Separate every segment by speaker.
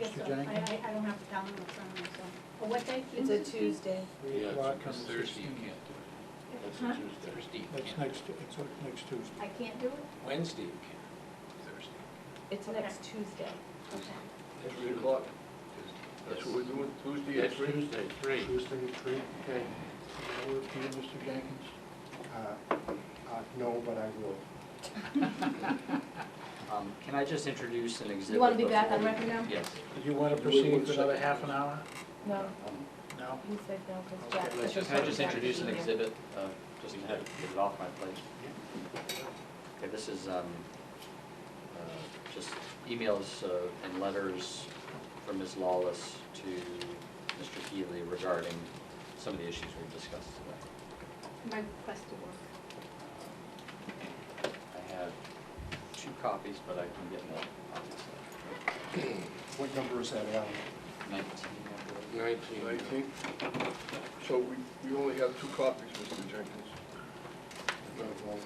Speaker 1: Yes, sir.
Speaker 2: Mr.
Speaker 1: I, I,
Speaker 2: Jenkins?
Speaker 1: I don't have the calendar in front of me, so. But what day?
Speaker 3: It's a Tuesday.
Speaker 2: Three
Speaker 4: Yeah,
Speaker 2: o'clock
Speaker 4: it's-
Speaker 2: on
Speaker 4: it's
Speaker 2: the
Speaker 4: Thursday, you
Speaker 2: 16th.
Speaker 4: can't do it. That's
Speaker 1: Huh?
Speaker 4: a Tuesday, Thursday, you
Speaker 2: That's
Speaker 4: can't.
Speaker 2: next, it's next Tuesday.
Speaker 1: I can't do it?
Speaker 4: Wednesday, you can. Thursday.
Speaker 3: It's
Speaker 1: Okay.
Speaker 3: next Tuesday.
Speaker 1: Okay.
Speaker 4: That's
Speaker 5: Three o'clock.
Speaker 4: Tuesday.
Speaker 5: That's what we're doing, Tuesday at
Speaker 4: That's
Speaker 5: three?
Speaker 4: Tuesday, three.
Speaker 2: Tuesday at three, okay. Does that work for you, Mr. Jenkins?
Speaker 6: Uh, uh, No, but I will.
Speaker 7: Um, Can I just introduce an exhibit?
Speaker 1: You wanna be back
Speaker 7: before
Speaker 1: on
Speaker 7: we-
Speaker 1: record now?
Speaker 7: Yes.
Speaker 2: Do you want to proceed for another half an hour?
Speaker 3: No,
Speaker 2: No?
Speaker 3: you said no, because Jack.
Speaker 2: Okay, let's
Speaker 3: said
Speaker 7: Can I just
Speaker 3: Jack
Speaker 7: introduce an
Speaker 3: should be here.
Speaker 7: exhibit, uh, just to have, get it off my plate? Okay, this is um, uh, just emails uh, and letters from Ms. Lawless to Mr. Healy regarding some of the issues we've discussed today.
Speaker 1: My request to work.
Speaker 7: I have two copies, but I can get more copies.
Speaker 6: What number is that, Alan?
Speaker 7: Nineteen, I believe.
Speaker 4: Nineteen.
Speaker 5: Nineteenth. So we, we only have two copies, Mr. Jenkins.
Speaker 6: Okay, well,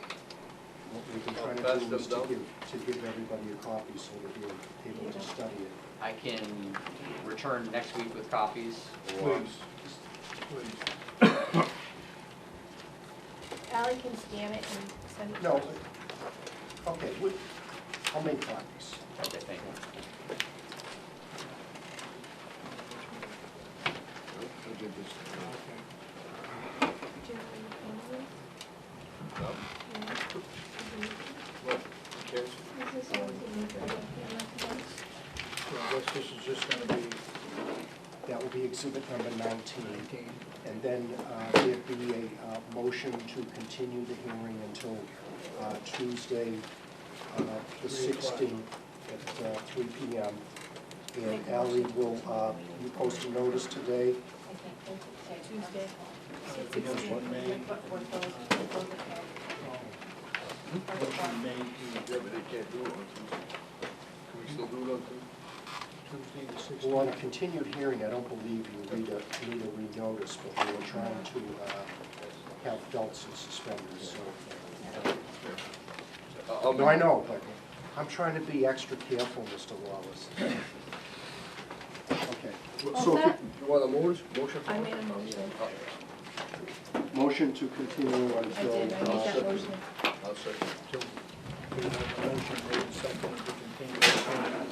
Speaker 6: What we've been
Speaker 5: I'll
Speaker 6: trying
Speaker 5: pass
Speaker 6: to do
Speaker 5: them
Speaker 6: is to
Speaker 5: down.
Speaker 6: give, to give everybody a copy so that you're able to study it.
Speaker 7: I can return next week with copies or.
Speaker 6: Please.
Speaker 2: Please.
Speaker 3: Ally can scan it and send it.
Speaker 6: No, okay, we- I'll make copies.
Speaker 7: Okay, thank you.
Speaker 5: I did this.
Speaker 2: Okay.
Speaker 3: Do you have any
Speaker 5: No?
Speaker 3: cameras?
Speaker 5: What? Can't-
Speaker 3: No. Is this yours? You need to have a camera today?
Speaker 2: So I guess this is just going to be
Speaker 6: That will be exhibit number 19.
Speaker 2: 19.
Speaker 6: And then uh, there'd be a uh, motion to continue the hearing until uh, Tuesday, uh, the
Speaker 2: Three o'clock.
Speaker 6: 16th at uh, 3 PM. And Ally will, uh, you post a notice today,
Speaker 3: Tuesday.
Speaker 2: Motion made, motion made to
Speaker 5: Yeah, but they can't do it on Tuesday. Can we still do it on Tuesday?
Speaker 2: Tuesday the
Speaker 6: Well, on
Speaker 2: 16th.
Speaker 6: a continued hearing, I don't believe you need a, need a renotice, but we were trying to uh, have belts and suspenders, so.
Speaker 5: I- I'll
Speaker 6: No, I
Speaker 5: make-
Speaker 6: know, but I'm trying to be extra careful, Mr. Wallace. Okay,
Speaker 3: What's
Speaker 5: So,
Speaker 3: that?
Speaker 5: you want a motion? Motion for
Speaker 3: I
Speaker 5: it?
Speaker 3: made a motion.
Speaker 5: I'll-
Speaker 6: motion to continue
Speaker 3: I did, I made
Speaker 6: until,
Speaker 3: that motion.
Speaker 5: Oh, I'll second.
Speaker 2: So, we have a motion made, second to continue the hearing
Speaker 6: uh,